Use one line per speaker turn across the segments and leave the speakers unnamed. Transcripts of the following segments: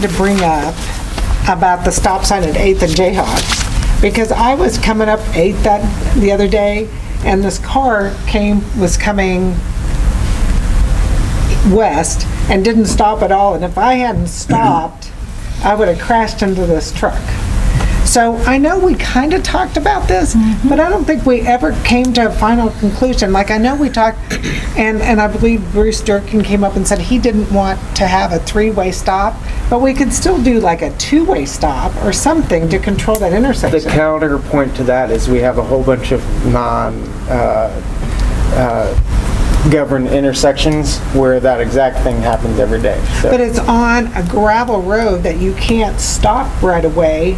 to bring up about the stop sign at 8th and Jayhawk, because I was coming up 8th that, the other day, and this car came, was coming west and didn't stop at all, and if I hadn't stopped, I would have crashed into this truck. So I know we kind of talked about this, but I don't think we ever came to a final conclusion. Like, I know we talked, and, and I believe Bruce Durkin came up and said he didn't want to have a three-way stop, but we could still do like a two-way stop or something to control that
The
intersection.
counterpoint to that is we have a whole bunch of uh, non-governed uh, intersections where that exact thing happens every day. So-
But it's on a gravel road that you can't stop right away.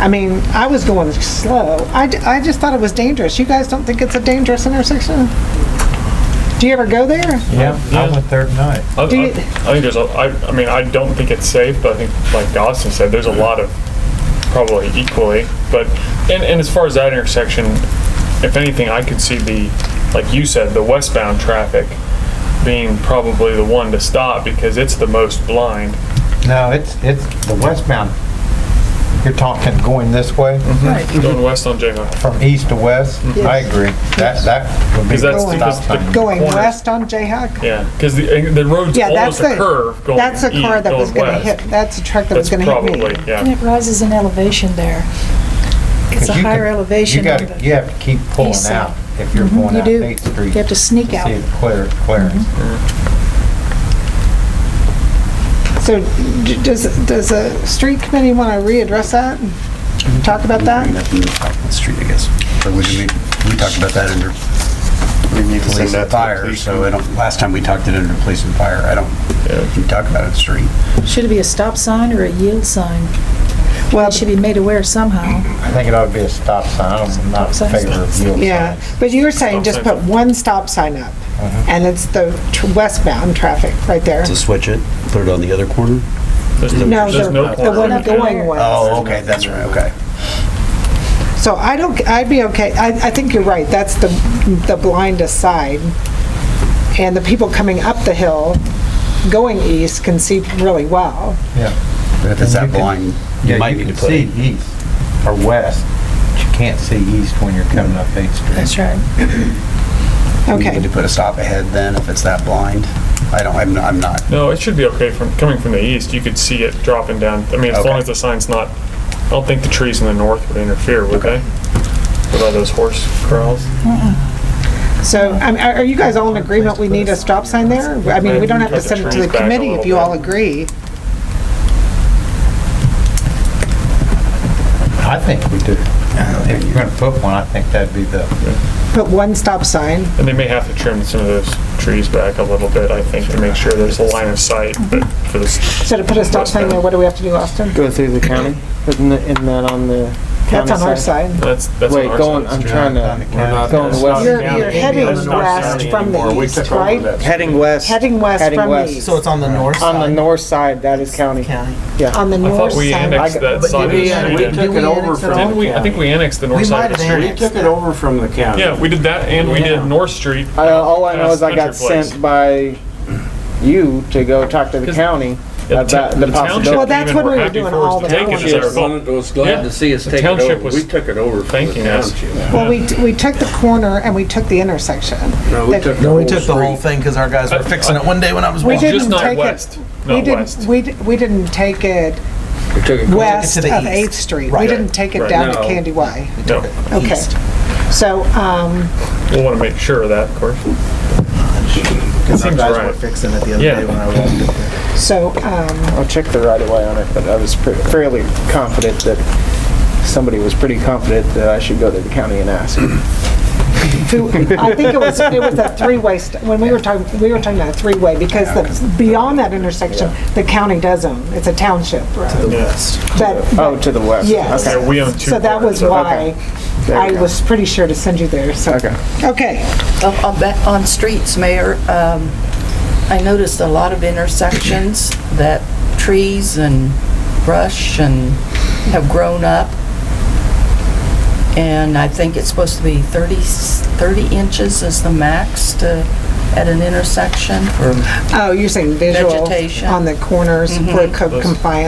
I mean, I was going slow. I, d- I just thought it was dangerous. You guys don't think it's a dangerous intersection? Do you ever go there?
Yeah, I
Yeah.
went there tonight.
I, I,
Do you-
I think there's a, I, I mean, I don't think it's safe, but I think, like Austin said, there's a lot of probably equally. But, and, and as far as that intersection, if anything, I could see the, like you said, the westbound traffic being probably the one to stop because it's the most blind.
No, it's, it's the westbound. You're talking going this way
Mm-hmm.
Going west on Jayhawk.
from east to west? I agree. That, that would be
Because
the
that's,
Going-
because
stop
the.
sign.
Going
corner-
west on Jayhawk?
Yeah, because the, the road's
Yeah, that's
almost
the,
a curve going
that's the car
east-
that was
going
gonna
west.
hit, that's a truck that was
That's
gonna hit me.
probably,
And
yeah.
it rises in elevation there. It's a
'Cause you
higher
can-
elevation.
You
on
gotta,
the-
you have to keep pulling
east side. Mm-hmm.
out if you're going
You
out
do.
Eighth Street.
You have to sneak out. Mm-hmm.
See it clear, clearing.
So d- does, does the street committee wanna readdress that? Talk about that?
the street, I guess. But we, we we talked about that under police and fire, so I don't, last time we talked it under police and fire, I don't, we talked about it in the street.
Should it be a stop sign or a yield sign?
Well,
It should be made aware somehow.
I think it ought to be a stop sign. I don't- I'm not in
Stop sign.
favor of yield
Yeah,
signs.
but you were saying just put
Stop Uh-huh.
one stop sign up, and it's the tr- westbound traffic right there.
To switch it, put it on the other corner?
There's
No,
there's
the
no
the one
corner.
going west.
Oh, okay, that's right, okay.
So I don't, I'd be okay, I, I think you're right, that's the, the blindest side. And the people coming up the hill, going east, can see really well.
Yeah.
But if it's that
And you can-
blind,
Yeah,
you might
you
need to
can
put
see
it.
east or west, but you can't see east when you're coming up Eighth Street.
That's right.
You
Okay.
need to put a stop ahead then, if it's that blind. I don't, I'm, not- I'm not,
No, it should be okay from, coming from the east, you could see it dropping down, I mean, as long
Okay.
as the sign's not, I don't think the trees in the north would interfere, would they? What about those horse corrals?
So, I mean, are are you guys all in agreement we need a stop sign there? I mean, we don't have to send it to the committee if you all agree.
I think we do. If you're gonna put one, I think that'd be the,
Put one stop sign,
And they may have to trim some of those trees back a little bit, I think, to make sure there's a line of sight, but for this,
so to put a stop sign there, what do we have to do, Austin?
go through the county, isn't it- isn't that on the county
That's on our side.
that's, that's on
Wait,
our
going,
side.
I'm trying to, going west.
You're, you're heading
That's not
west
Saturday
from the east, right?
Heading west.
Heading west
Heading
from the
west.
east,
So it's on the north side?
On the north side, that is county.
on the
I
north
thought we
side.
annexed that side of the
we- we
street.
took
didn't
it over
we?
from
Didn't we, I think we annexed the north side of
might
the
have
street.
We took it over from the county.
Yeah, we did that, and we did North Street.
I- All I know is I got
Past Country Place.
sent by you to go talk to the county
Yeah, the
about
town-
the
the township
possibility.
Well, that's
even
what
were
we were
happy
doing
for us
all
to
the
take it as
time.
our fault.
Someone was glad
Yeah.
to see us
The
take it over.
township was
We took it over from the
thanking us.
township.
Well, we, we took the corner and we took the intersection.
No, we took the
No, we
whole
took the whole
street.
thing because our guys were fixing it one day when I was
We
watching.
didn't
Just not
take it-
west,
We
not
didn't,
west.
we, di- we didn't take it
We took it-
west
to
of
the east.
8th Street. We
Right.
didn't take it
Right.
down to
No.
Candy Way.
No,
Okay. So, um,
we'll want to make sure of that, of course.
Because our
Seems
guys
right.
were fixing it the other
Yeah.
day when I walked in there.
so, um,
I'll check the right of way on it, but I was pre- fairly confident that, somebody was pretty confident that I should go to the county and ask.
who, I think it was, it was a three-way, st- when we were talking, we were talking about a three-way because the, beyond that intersection, the county does own, it's a township road.
Yes.
But
Oh, to the west.
Yes.
Okay.
Yeah, we own two.
So that was
corners of it.
why
There
I
you go.
was pretty sure to send you there, so.
Okay.
Okay,
On- On ba- on streets, Mayor, um, I noticed a lot of intersections that trees and brush and have grown up. And I think it's supposed to be 30 30 inches is the max to at an intersection.
Oh, you're saying visual
Vegetation.
on the corners for co- compliance?